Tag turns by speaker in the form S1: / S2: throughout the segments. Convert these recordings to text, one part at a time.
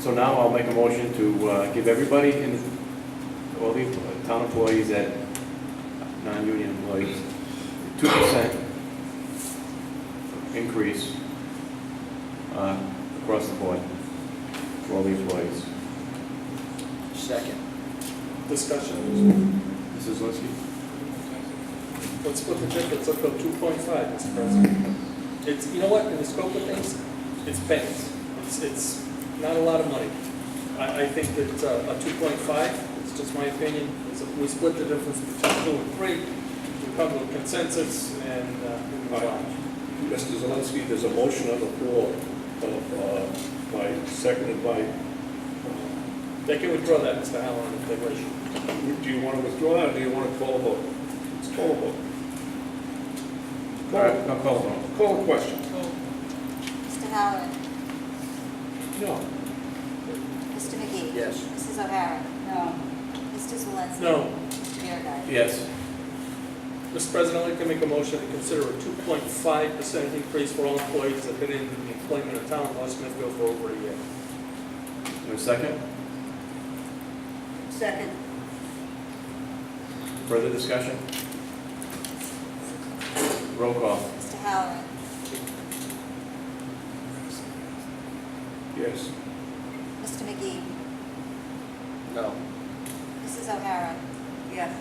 S1: So now I'll make a motion to uh, give everybody in, all the town employees at non-union employees, two percent increase uh, across the board for all the employees.
S2: Second.
S3: Discussion.
S1: Mrs. Zelinski?
S3: Let's split the difference up to two point five, Mr. President. It's, you know what, in the scope of things, it's pennies. It's, it's not a lot of money. I, I think that uh, a two point five, it's just my opinion, is if we split the difference between two and three, we come to a consensus and, uh, we move on.
S4: Mr. Zelinski, there's a motion on the floor, uh, by, seconded by, uh,
S3: They can withdraw that, Mr. Halloran, if they wish.
S4: do you want to withdraw it, or do you want to call a vote? It's call a vote.
S1: All right, I'll call them.
S4: Call, call a question.
S5: Mr. Halloran.
S4: No.
S5: Mr. McGee.
S2: Yes.
S5: Mrs. O'Hara. No. Mr. Zelinski.
S3: No,
S5: Mr. Biragad.
S1: Yes.
S3: Mr. President, I'd like to make a motion to consider a 2.5% increase for all employees that have been in the employment of town of West Smithfield for over a year.
S1: In a second,
S5: Second.
S1: further discussion? Roll call.
S5: Mr. Halloran.
S4: Yes.
S5: Mr. McGee.
S2: No.
S5: Mrs. O'Hara. Yes.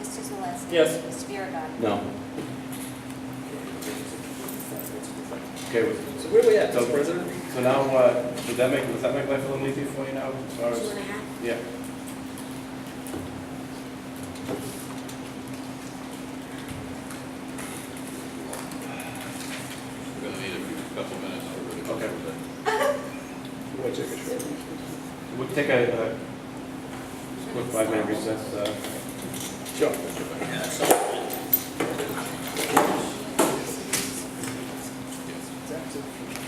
S5: Mr. Zelinski.
S3: Yes.
S5: Mr. Biragad.
S1: No. Okay, with-
S3: So where are we at,
S1: So-
S3: Mr. President?
S1: so now, uh, did that make, does that make life a little easier for you now? as far as-
S6: Two and a half?
S1: Yeah.
S7: We're gonna need a few- couple minutes to really go
S1: Okay.
S7: through that.
S4: We'll take a short.
S1: We'll take a, uh, quick five-minute recess, uh,
S3: Sure.
S7: Yes.